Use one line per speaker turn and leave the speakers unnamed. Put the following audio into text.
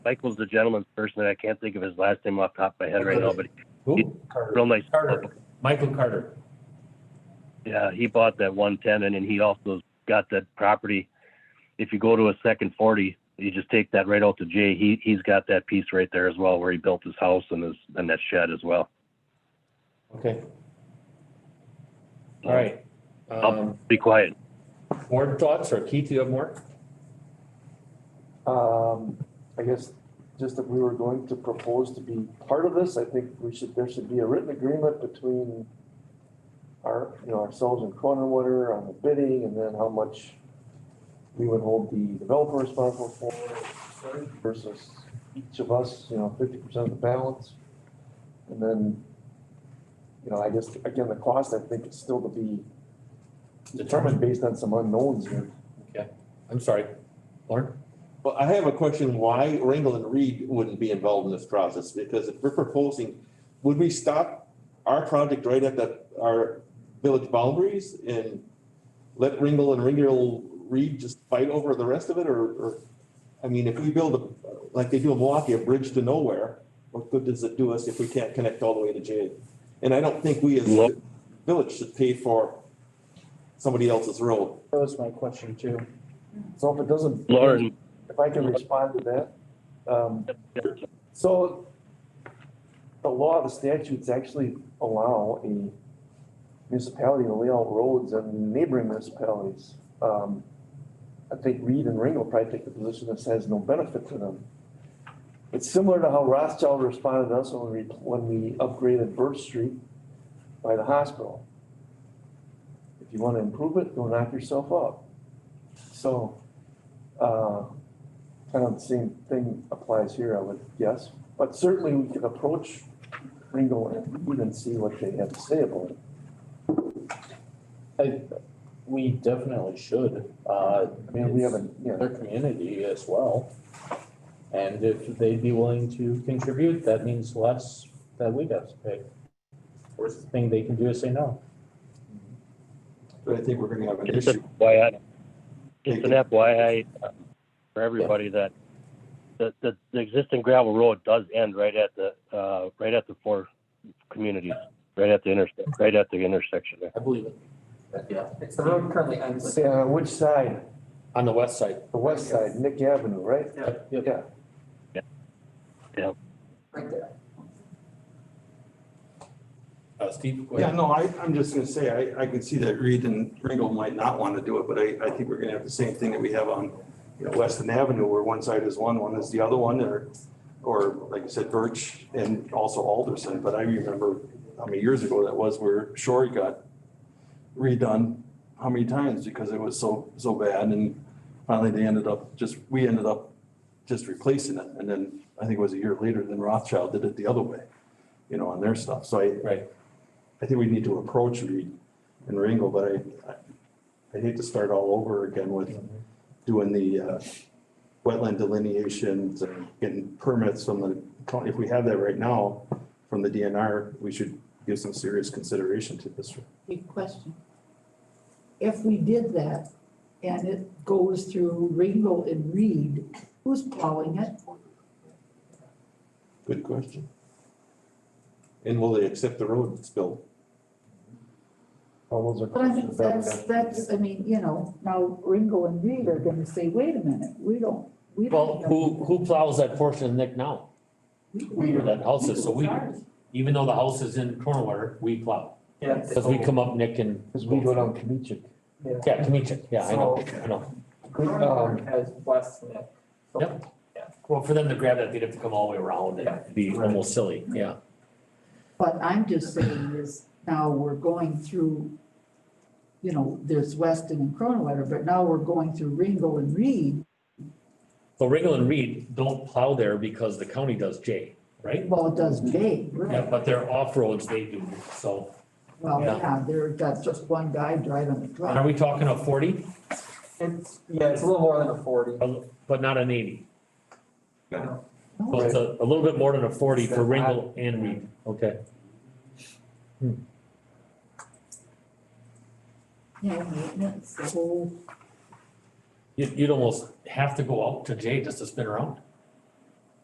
Michael's the gentleman's person, and I can't think of his last name off the top of my head right now, but
Who?
he's real nice.
Carter, Michael Carter.
Yeah, he bought that one ten and then he also got that property. If you go to a second forty, you just take that right out to Jay. He he's got that piece right there as well where he built his house and his and that shed as well.
Okay. All right. Um,
Be quiet.
More thoughts or Keith, you have more?
Um, I guess just if we were going to propose to be part of this, I think we should, there should be a written agreement between our, you know, ourselves and Croninwater on the bidding and then how much we would hold the developer responsible for versus each of us, you know, fifty percent of the balance. And then, you know, I guess, again, the cost, I think is still to be determined based on some unknowns here.
I'm sorry. Lauren?
Well, I have a question, why Ringel and Reed wouldn't be involved in this process? Because if we're proposing, would we stop our project right at the, our village boundaries and let Ringel and Ringel Reed just fight over the rest of it, or, or, I mean, if we build, a like they do in Milwaukee, a bridge to nowhere, what good does it do us if we can't connect all the way to Jay? And I don't think we as a village should pay for somebody else's road.
That was my question too.
So if it doesn't.
Lauren,
if I can respond to that. Um, So the law, the statutes actually allow a municipality to lay out roads in neighboring municipalities. Um, I think Reed and Ring will probably take the position that says no benefit to them. It's similar to how Rothschild responded to us when we, when we upgraded Birch Street by the hospital. If you want to improve it, go knock yourself up. So, uh, kind of the same thing applies here, I would guess, but certainly we could approach Ringo and Reed and see what they have to say about it.
I, we definitely should, uh.
I mean, we haven't, you know,
Their community as well. And if they'd be willing to contribute, that means less that we'd have to pay. Worst thing they can do is say no.
But I think we're gonna have an
just
issue.
an FYI, just an FYI um, for everybody that the, the the existing gravel road does end right at the uh right at the four communities, right at the intersect, right at the intersection there.
I believe it. Yeah.
It's the road currently ends with.
say on which side,
On the west side.
the west side, Nick Avenue, right?
Yep,
Yep.
Yeah,
Right there.
Uh, Steve? go
Yeah,
ahead.
no, I, I'm just gonna say, I, I can see that Reed and Ringel might not want to do it, but I, I think we're gonna have the same thing that we have on, you know, Weston Avenue, where one side is one, one is the other one, or, or like you said, Birch and also Alderson, but I remember how many years ago that was where Shore got redone, how many times, because it was so, so bad, and finally they ended up, just, we ended up just replacing it, and then I think it was a year later, then Rothschild did it the other way, you know, on their stuff, so I,
Right.
I think we need to approach Reed and Ringel, but I- I, I hate to start all over again with
Mm-hmm.
doing the uh, wetland delineations and getting permits from the county. If we have that right now from the DNR, we should give some serious consideration to this.
Big question. If we did that and it goes through Ringel and Reed, who's plowing it?
Good question. And will they accept the road that's built?
all those are.
But I think that's, that's, I mean, you know, now Ringel and Reed are gonna say, wait a minute, we don't, we don't.
Well, who, who plows that portion of Nick now?
who,
Where that house is, so we, even though the house is in Cornwater, we plow.
Yeah.
Because we come up Nick and,
Because we go down Kamichik.
yeah, Kamichak, yeah, I know, I know.
Um,
Has West Nick.
Yep. Well, for them to grab that, they'd have to come all the way around and it'd be almost silly, yeah.
But I'm just saying is now we're going through, you know, there's Weston and Cronewetter, but now we're going through Ringel and Reed.
So Ringel and Reed don't plow there because the county does J, right?
Well, it does Jay,
Yeah,
right?
but they're off-roads they do, so.
Well,
Yeah.
yeah, there, that's just one guy driving the
And are
truck.
we talking a forty,
It's, yeah, it's a little more than a forty.
but not an eighty?
No,
So it's a, a little bit more than a forty for Ringel and Reed, okay.
You know, maintenance, the whole
You, you'd almost have to go out to J just to spin around.